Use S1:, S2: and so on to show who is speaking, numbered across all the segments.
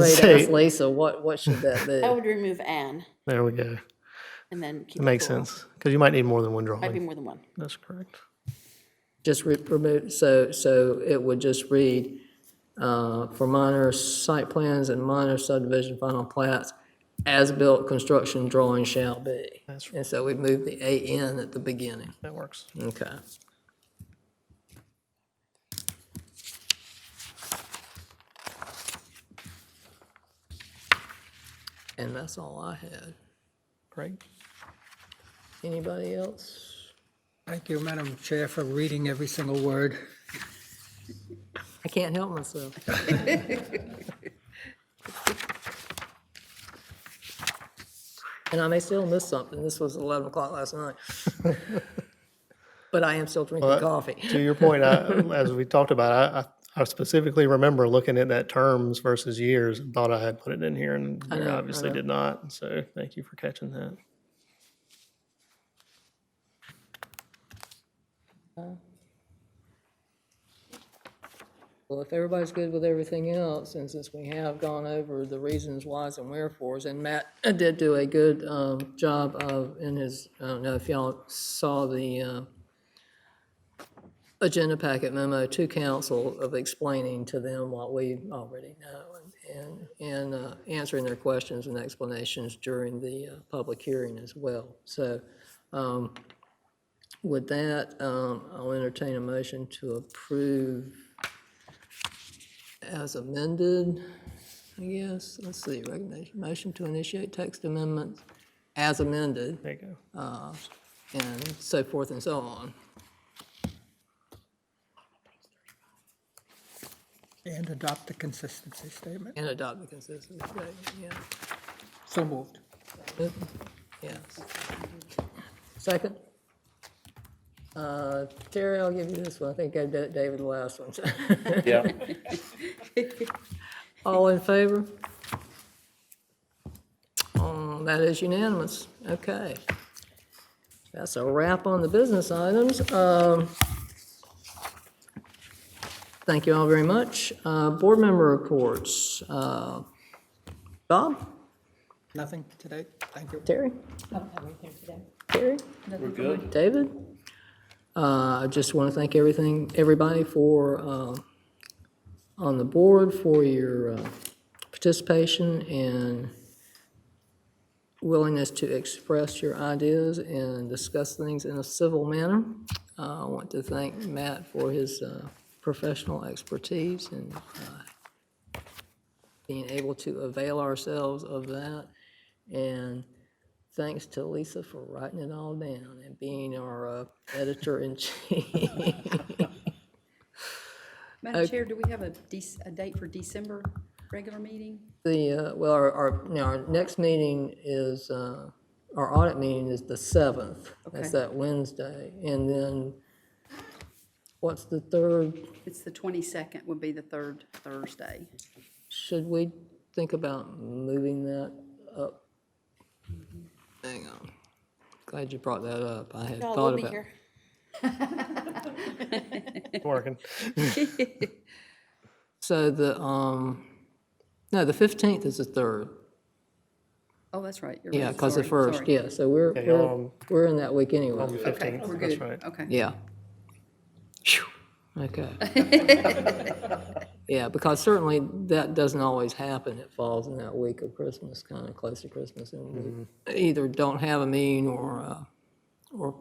S1: Wait,
S2: Say-
S1: ask Lisa, what, what should that be?
S3: I would remove an
S2: There we go.
S3: and then keep
S2: It makes
S3: plural.
S2: sense, because you might need more than one
S3: Might be
S2: drawing.
S3: more than one.
S2: That's correct.
S1: Just re- remove, so, so it would just read, uh, for minor site plans and minor subdivision final plats, as-built construction drawings shall be.
S2: That's right.
S1: And so we move the AN at the beginning.
S2: That works.
S1: Okay. And that's all I had.
S2: Great.
S1: Anybody else?
S4: Thank you, Madam Chair, for reading every single word.
S1: I can't help myself. And I may still miss something. This was 11 o'clock last night. But I am still drinking coffee.
S2: To your point, I, as we talked about, I, I I specifically remember looking at that terms versus years and thought I had put it in here and
S1: I
S2: Mary
S1: know, I
S2: obviously
S1: know.
S2: did not. So thank you for catching that.
S1: Well, if everybody's good with everything else, and since we have gone over the reasons whys and wherefores, and Matt did do a good um, job of, in his, I don't know if y'all saw the uh, agenda packet memo to council of explaining to them what we already know and, and uh, answering their questions and explanations during the uh, public hearing as well. So um, with that, um, I'll entertain a motion to approve as amended, I guess. Let's see, recommendation, motion to initiate text amendments as amended
S2: There you go.
S1: and so forth and so on.
S4: And adopt the consistency statement.
S1: And adopt the consensus, right, yeah.
S4: So moved.
S1: Yes. Second? Uh, Terry, I'll give you this one. I think I did David the last one.
S5: Yeah.
S1: All in favor? Um, That is unanimous. Okay. That's a wrap on the business items. Um, Thank you all very much. Uh, Board member reports. Uh, Bob?
S4: Nothing today. Thank you.
S1: Terry? Terry?
S5: We're good.
S1: David? Uh, I just want to thank everything, everybody for, uh, on the board for your uh, participation and willingness to express your ideas and discuss things in a civil manner. Uh, I want to thank Matt for his uh, professional expertise and uh, being able to avail ourselves of that. And thanks to Lisa for writing it all down and being our uh, editor in chief.
S6: Madam Chair, do we have a dec- a date for December regular meeting?
S1: The, uh, well, our, our, now, our next meeting is, uh, our audit meeting is the 7th. That's
S6: Okay.
S1: that Wednesday. And then, what's the third?
S6: It's the 22nd would be the third Thursday.
S1: Should we think about moving that up? Hang on. Glad you brought that up. I had
S3: No,
S1: thought
S3: we'll be
S1: about.
S3: here.
S2: It's Working.
S1: So the, um, no, the 15th is the third.
S6: Oh, that's right. you're right,
S1: Yeah, because the
S6: sorry,
S1: first,
S6: sorry.
S1: yeah. So we're,
S2: Yeah, y'all,
S1: we're,
S2: um,
S1: we're in that week anyway.
S6: Okay,
S2: 15th.
S6: we're
S2: That's
S6: good.
S2: right.
S6: Okay.
S1: Yeah. Phew, Okay. Yeah, because certainly that doesn't always happen. It falls in that week of Christmas, kind of close to Christmas, and we either don't have a meeting or, uh, or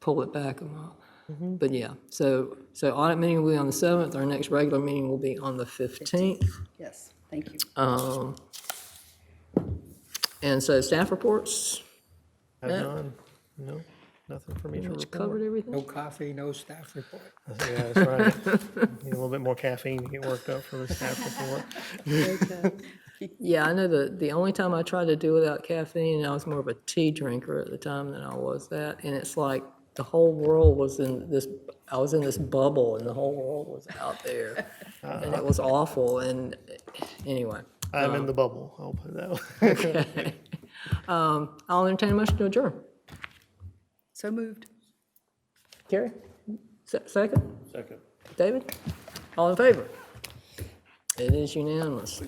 S1: pull it back a month. But yeah, so, so audit meeting will be on the 7th. Our next regular meeting will be on the 15th.
S6: Yes, thank you.
S1: Um, And so staff reports,
S2: Have
S1: Yeah.
S2: none. No, nothing for me to
S1: which
S2: report.
S1: covered everything.
S4: No coffee, no staff report.
S2: Yeah, that's right. Need a little bit more caffeine to get worked up for this staff report.
S1: Yeah, I know the, the only time I tried to do without caffeine, I was more of a tea drinker at the time than I was that. And it's like the whole world was in this, I was in this bubble and the whole world was out there. And it was awful. And anyway,
S2: I'm
S1: Uh-huh.
S2: in the bubble. I'll put it that way.
S1: I'll entertain a motion to adjourn.
S6: So moved.
S1: Carrie? Se- Second?
S5: Second.
S1: David? All in favor? It is unanimous.